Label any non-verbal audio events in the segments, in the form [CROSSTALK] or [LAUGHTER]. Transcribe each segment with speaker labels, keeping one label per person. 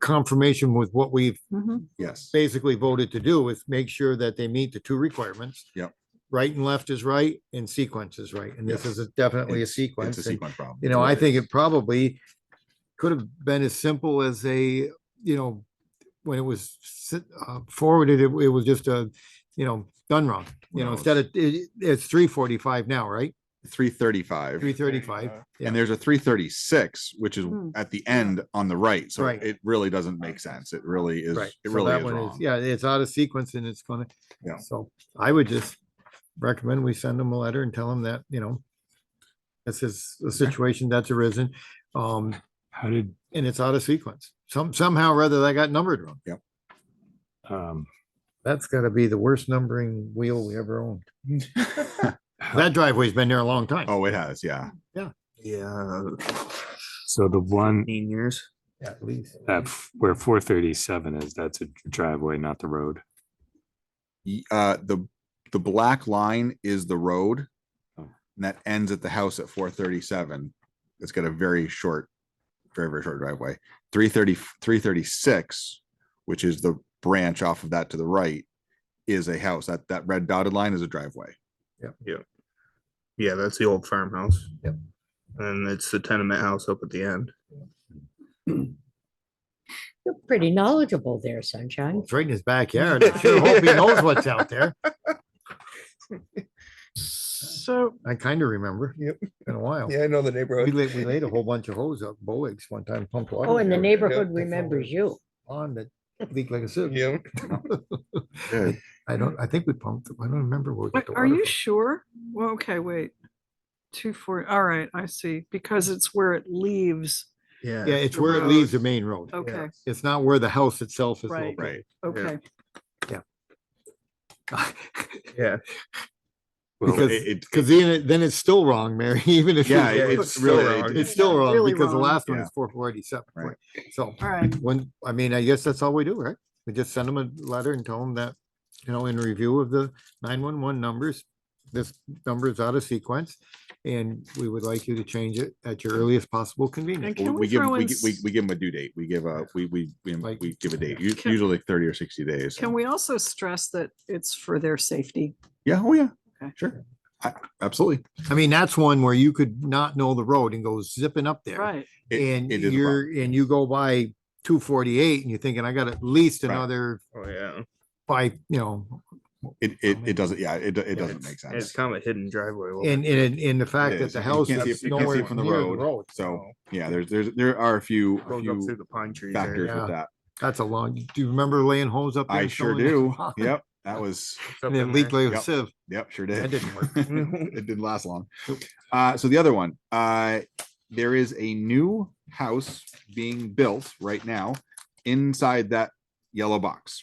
Speaker 1: confirmation with what we've
Speaker 2: Mhm.
Speaker 3: Yes,
Speaker 1: basically voted to do is make sure that they meet the two requirements.
Speaker 3: Yep.
Speaker 1: Right and left is right and sequence is right. And this
Speaker 3: Yes.
Speaker 1: is a- definitely a
Speaker 3: It's- it's a
Speaker 1: sequence. and,
Speaker 3: sequence problem.
Speaker 1: You know, I think it probably could have been as simple as a, you know, when it was s- uh, forwarded, it it was just a, you know, done wrong. You know,
Speaker 3: No,
Speaker 1: instead of, it- it's three forty-five now, right?
Speaker 3: Three thirty-five.
Speaker 1: Three thirty-five.
Speaker 3: And there's a three thirty-six, which is
Speaker 2: Mm.
Speaker 3: at the end on the right, so
Speaker 1: Right.
Speaker 3: it really doesn't make sense. It really is,
Speaker 1: Right.
Speaker 3: it
Speaker 1: so
Speaker 3: really
Speaker 1: that
Speaker 3: is
Speaker 1: one
Speaker 3: wrong.
Speaker 1: Yeah, it's out of sequence and it's gonna.
Speaker 3: Yeah.
Speaker 1: So I would just recommend we send them a letter and tell them that, you know, this is a situation that's arisen, um,
Speaker 4: How did,
Speaker 1: and it's out of sequence. Some, somehow or other, that got numbered wrong.
Speaker 4: um,
Speaker 1: That's gotta be the worst numbering wheel we ever
Speaker 3: [LAUGHS]
Speaker 1: owned. That driveway's been there a long time.
Speaker 3: Oh, it has, yeah.
Speaker 5: Yeah,
Speaker 4: so the one
Speaker 5: fifteen years.
Speaker 1: At least.
Speaker 4: at f- where four thirty-seven is, that's a driveway, not the road.
Speaker 3: Y- Uh, the, the black line is the road.
Speaker 4: Oh.
Speaker 3: And that ends at the house at four thirty-seven. It's got a very short, very, very short driveway. Three thirty, three thirty-six, which is the branch off of that to the right, is a house. That, that red dotted line is a driveway.
Speaker 5: Yeah, that's the old farmhouse.
Speaker 1: Yep.
Speaker 5: And it's the tenement house up at the end.
Speaker 6: You're pretty knowledgeable there, sunshine.
Speaker 1: It's right in his backyard. I sure hope he knows what's out
Speaker 3: [LAUGHS]
Speaker 1: there.
Speaker 7: So,
Speaker 1: I kinda remember.
Speaker 7: Yep.
Speaker 1: Been a while.
Speaker 7: yeah, I know the
Speaker 1: Oh. We
Speaker 7: neighborhood.
Speaker 1: laid, we laid a whole bunch of hose up, Boeing's one time pumped water.
Speaker 6: Oh, and the
Speaker 1: there.
Speaker 6: neighborhood
Speaker 7: that's all
Speaker 6: remembers
Speaker 7: right.
Speaker 6: you.
Speaker 1: pond that leaked like a sieve.
Speaker 7: [LAUGHS] Yeah,
Speaker 3: Yeah.
Speaker 1: I don't, I think we pumped, I don't remember where. we got
Speaker 7: Wait,
Speaker 1: the
Speaker 7: are
Speaker 1: water
Speaker 7: you
Speaker 1: from.
Speaker 7: sure? Well, okay, wait. Two forty, all right, I see, because it's where it leaves.
Speaker 1: Yeah, it's
Speaker 7: the
Speaker 1: where it leaves the
Speaker 7: road?
Speaker 1: main road.
Speaker 7: Okay,
Speaker 1: It's not where the house itself is
Speaker 7: Oh. Right.
Speaker 1: located.
Speaker 3: Right.
Speaker 7: okay.
Speaker 5: Yeah.
Speaker 4: Well,
Speaker 1: Because-
Speaker 3: It, it-
Speaker 1: Cause then, it- then it's still wrong, Mary, [LAUGHS] even if. you-
Speaker 3: [LAUGHS] Yeah,
Speaker 5: Yeah,
Speaker 3: it's
Speaker 5: it's still
Speaker 3: really, it-
Speaker 5: wrong.
Speaker 1: It's
Speaker 3: it's,
Speaker 1: still wrong
Speaker 7: Really
Speaker 1: because the
Speaker 7: wrong.
Speaker 1: last one
Speaker 3: Yeah.
Speaker 1: is four forty-seven.
Speaker 3: Right.
Speaker 1: So
Speaker 7: All right,
Speaker 1: when, I mean, I guess that's all we do, right? We just send them a letter and tell them that, you know, in review of the nine-one-one numbers, this number is out of sequence. And we would like you to change it at your earliest possible
Speaker 7: and
Speaker 1: convenience.
Speaker 3: we
Speaker 7: can
Speaker 3: we
Speaker 7: we
Speaker 3: give,
Speaker 7: throw
Speaker 3: we,
Speaker 7: in,
Speaker 3: gi- we,
Speaker 7: s-
Speaker 3: we give them a due date. We give a, we, we, we,
Speaker 1: Like-
Speaker 3: we give a date, u-
Speaker 7: Can-
Speaker 3: usually like thirty or sixty days.
Speaker 7: can we also stress that it's for their safety?
Speaker 3: Yeah, oh yeah,
Speaker 7: Okay.
Speaker 3: sure. I, absolutely.
Speaker 1: I mean, that's one where you could not know the road and go zipping up there.
Speaker 7: Right,
Speaker 3: It-
Speaker 1: and
Speaker 3: it is a problem.
Speaker 1: you're, and you go by two forty-eight and you're thinking, I got at least
Speaker 3: Right.
Speaker 1: another
Speaker 5: Oh, yeah.
Speaker 1: five, you know,
Speaker 3: It, it, it doesn't, yeah, it, do- it doesn't
Speaker 5: It's-
Speaker 3: make
Speaker 5: It's
Speaker 3: sense.
Speaker 5: kind of a hidden driveway. a little
Speaker 1: and,
Speaker 5: bit.
Speaker 1: and, and the fact that
Speaker 3: is.
Speaker 1: the
Speaker 3: You
Speaker 1: house
Speaker 3: can't see
Speaker 1: is
Speaker 3: it- you can't see
Speaker 1: nowhere
Speaker 3: it from the
Speaker 1: near the
Speaker 3: road.
Speaker 1: road.
Speaker 3: So, yeah, there's, there's, there are a few, a
Speaker 5: Goes uh, up through
Speaker 3: few
Speaker 5: the pine trees.
Speaker 3: factors
Speaker 5: area.
Speaker 1: Yeah.
Speaker 3: with that.
Speaker 1: That's a long, do you remember laying holes up? there
Speaker 3: I
Speaker 1: and
Speaker 3: sure
Speaker 1: filling it?
Speaker 3: do.
Speaker 1: [LAUGHS]
Speaker 3: Yep, that was,
Speaker 5: It's up
Speaker 1: And it
Speaker 5: in
Speaker 1: leaked
Speaker 5: there.
Speaker 1: like a
Speaker 3: Yep.
Speaker 1: sieve.
Speaker 3: Yep, sure
Speaker 1: That
Speaker 3: did.
Speaker 1: didn't work.
Speaker 3: [LAUGHS] It didn't last long. Uh, so the other one, uh, there is a new house being built right now inside that yellow box.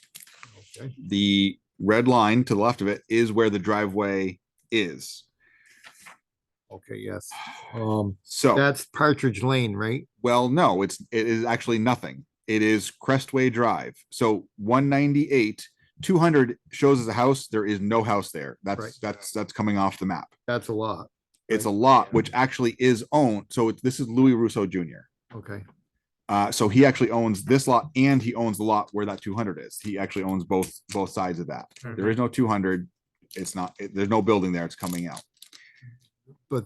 Speaker 1: Okay.
Speaker 3: The red line to the left of it is where the driveway is.
Speaker 1: Okay, yes. Um,
Speaker 3: So,
Speaker 1: that's Partridge Lane, right?
Speaker 3: well, no, it's, it is actually nothing. It is Crestway Drive. So one ninety-eight, two hundred shows as a house. There is no house there.
Speaker 1: Right.
Speaker 3: That's, that's, that's coming off the map.
Speaker 1: That's a lot.
Speaker 3: It's a lot, which actually is owned. So it's- this is Louis Russo Jr.
Speaker 1: Okay.
Speaker 3: Uh, so he actually owns this lot and he owns the lot where that two hundred is. He actually owns both, both sides of that.
Speaker 1: Mm-hmm.
Speaker 3: There is no two hundred. It's not, it- there's no building there. It's coming out.
Speaker 1: But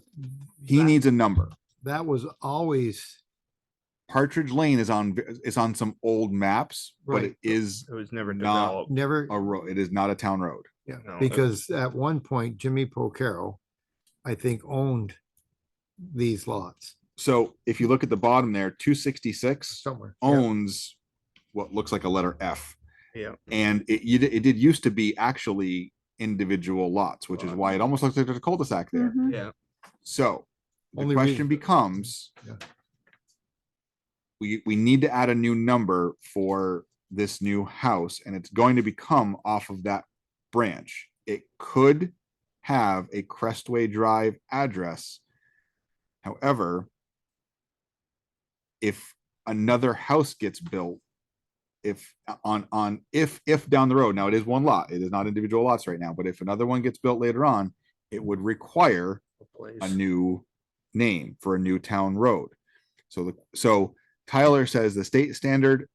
Speaker 3: He
Speaker 1: that-
Speaker 3: needs a number.
Speaker 1: That was always,
Speaker 3: Partridge Lane is on, v- is on some old maps, but
Speaker 1: Right.
Speaker 3: it is
Speaker 5: It was never
Speaker 3: Not-
Speaker 5: developed.
Speaker 1: never,
Speaker 3: a road. It is not a town road.
Speaker 1: Yeah,
Speaker 5: No, it-
Speaker 1: because at one point Jimmy Pocaro, I think, owned these lots
Speaker 3: So if you look at the bottom there, two sixty-six
Speaker 1: somewhere. Yeah.
Speaker 3: owns what looks like a letter F.
Speaker 5: Yeah.
Speaker 3: And it, you did- it did used to be actually individual lots, which is why it almost looks like there's a cul-de-sac there.
Speaker 7: Mhm.
Speaker 5: Yeah.
Speaker 3: So the
Speaker 1: Only reason-
Speaker 3: question becomes.
Speaker 1: Yeah.
Speaker 3: We, we need to add a new number for this new house and it's going to become off of that branch. It could have a Crestway Drive address. However. If another house gets built. If on, on, if, if down the road, now it is one lot, it is not individual lots right now, but if another one gets built later on, it would require
Speaker 5: a place.
Speaker 3: a new name for a new town road. So the, so Tyler says the state standard